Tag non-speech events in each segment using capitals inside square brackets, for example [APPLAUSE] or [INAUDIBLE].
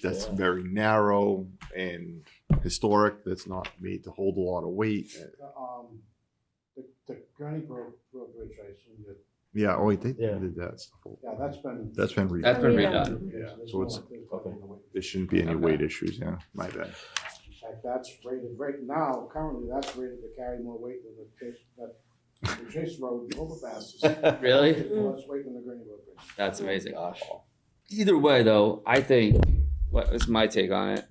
that's Yeah. very narrow and historic, that's not made to hold a lot of weight. Um, the, the Gurney Road, Road Bridge, I assume that, Yeah, oh, they Yeah. did that stuff. yeah, that's been. That's been re, That's been redone. Yeah, there's So no, it's- there's nothing to wait. there shouldn't be any Okay. weight issues, yeah, my [LAUGHS] bad. In fact, that's rated, right now, currently, that's rated to carry more weight than the Chase, that, the Chase Road overpass. is- Really? It was weight than the Gurney Road Bridge. That's amazing. Either way, though, I think what is my take on it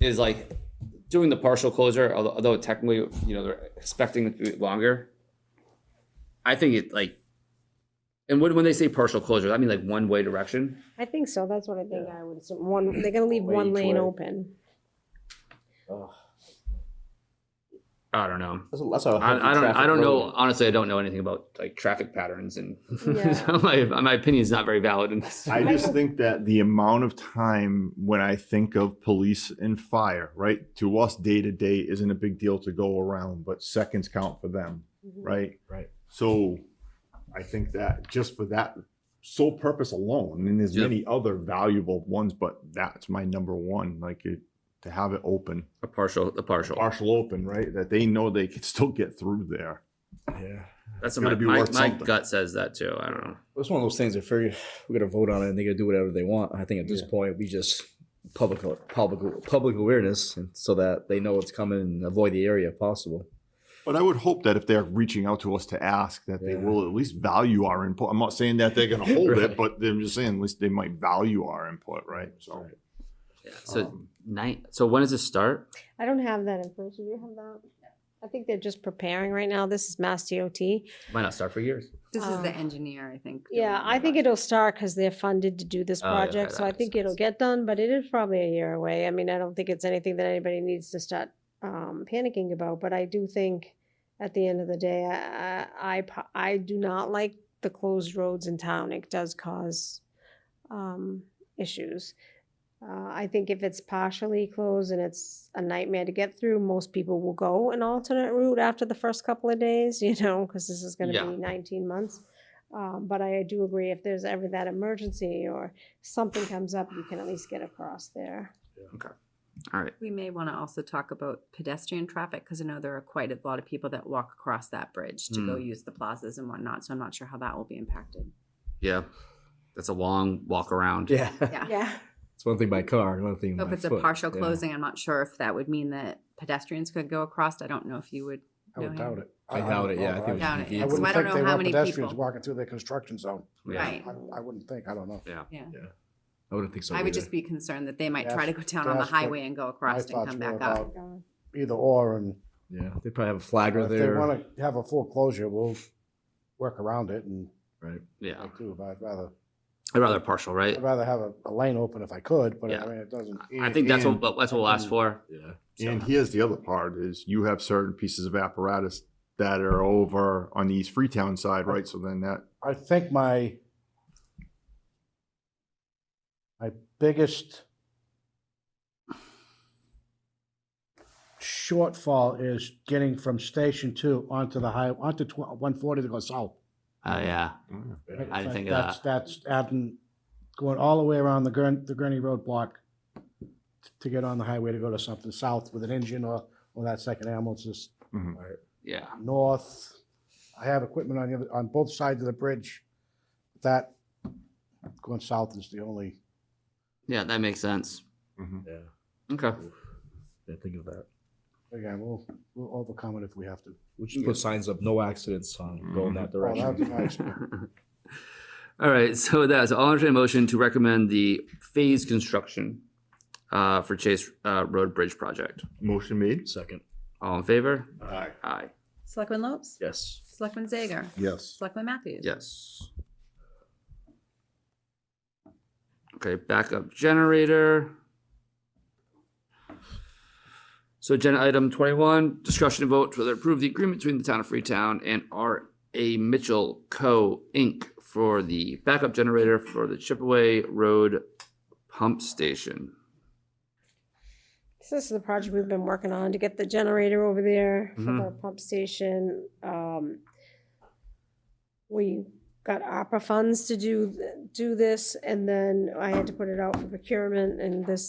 is like doing the partial closure, although, although technically, you know, they're expecting it to be longer. I think it like, and when, when they say partial closure, I mean like one way direction. I think so. That's what I think I would assume. One, they're gonna leave Way one each lane way. open. Ugh. I don't know. That's, a- that's a I, I don't. traffic I don't know. road. Honestly, I don't know anything about like traffic patterns, and Yeah. so [LAUGHS] my my opinion is not very valid in this. I just think that the amount of time when I think of police and fire, right? To us, day to day isn't a big deal to go around, but seconds count for them, right? Right. So I think that just for that sole purpose alone, and there's Yep. many other valuable ones, but that's my number one. Like it, to have it open, a partial. A partial. partial open, right? That they know they can [LAUGHS] still get through there. Yeah. That's Gotta my, be my, worth my something. gut says that too. I don't know. It's one of those things that figure we're gonna vote on it and they're gonna do whatever they want. I think at this point we just public public public awareness and so that they know what's coming and avoid the area if possible. But I would hope that if they're reaching out to us to ask, that they Yeah. will at least value our input. I'm not saying that they're going to hold Right. it, but I'm just saying at least they might value our input, right? So, Yeah. So um, night. So when does it start? I don't have that information. Do you have that? I think they're just preparing right now. This is Mass DOT. Might not start for years. This is the Um, engineer, I think. doing Yeah, the I think revised. it'll start because they're funded to do this Oh, yeah, okay, project. So that I makes think it'll sense. get done, but it is probably a year away. I mean, I don't think it's anything that anybody needs to start um, panicking about. But I do think at the end of the day, I, I, I po- I do not like the closed roads in town. It does cause um, issues. Uh, I think if it's partially closed and it's a nightmare to get through, most people will go an alternate route after the first couple of days, [LAUGHS] you know, because this is going to Yeah. be 19 months. Um, but I do agree if there's ever that emergency or something comes up, you can at least get across there. All right. We may want to also talk about pedestrian traffic because I know there are quite a lot of people that walk across that bridge to go Hmm. use the plazas and whatnot. So I'm not sure how that will [LAUGHS] be impacted. Yeah. That's a long walk around. Yeah. Yeah. Yeah. It's one thing by car, and one thing So if by it's a foot. partial Yeah. closing, I'm not sure if that would mean that pedestrians could go across. I don't know if you would. I would know him. doubt it. I doubt it, yeah, I don't think know. it Doubt it. would be I I So wouldn't I think don't they know how want many pedestrians people. walking through their construction zone. Yeah. Right. I, I wouldn't think, I don't know. Yeah. I wouldn't think so. I either. would just be concerned that they might try to That's- go down on the that's what highway and go across and thoughts come were back up. about Either or, and Yeah, they probably have a flagger if they there. wanna have a full closure, we'll work around it and right. Yeah. do, but I'd rather, I'd rather partial, right? I'd rather have a, a lane open if I could, but Yeah. I mean, it doesn't. I think that's what And, but that's what we'll ask for. Yeah. and here's the other part: is you have certain pieces of apparatus that are over on the East Freetown side, right? So then that I think my my biggest shortfall is getting from Station Two onto the high onto one forty to go south. Oh yeah. right? I didn't think of that's, that. That's adding going all the way around the Gurney, the Gurney Road block to get on the highway to go to something south with an engine or or that second ambulance is Yeah. north. I have equipment on the other, on both sides of the bridge. That going south is the only. Yeah, that makes sense. Mhm. Yeah. Okay. Didn't think of that. Again, we'll we'll overcome it if we have to. We'll just put signs up, no accidents on Mm-hmm. going that Oh, direction. that'd be nice. [LAUGHS] All right, so that's, I'll entertain a motion to recommend the phase construction uh, for Chase uh, Road Bridge project. motion made. Second. All in favor? Aye. Aye. Selectman Lopes? Yes. Selectman Zager? Yes. Selectman Matthews? Yes. Okay, backup generator. So agenda item twenty-one, discussion and vote whether approve the agreement between the town of Freetown and R A Mitchell Co. Inc. for the backup generator for the Chipaway Road Pump Station. So this is the project we've been working on to get the generator over there for the pump station. Um, we got opera funds to do, do this, and then I had to put it out for procurement, and this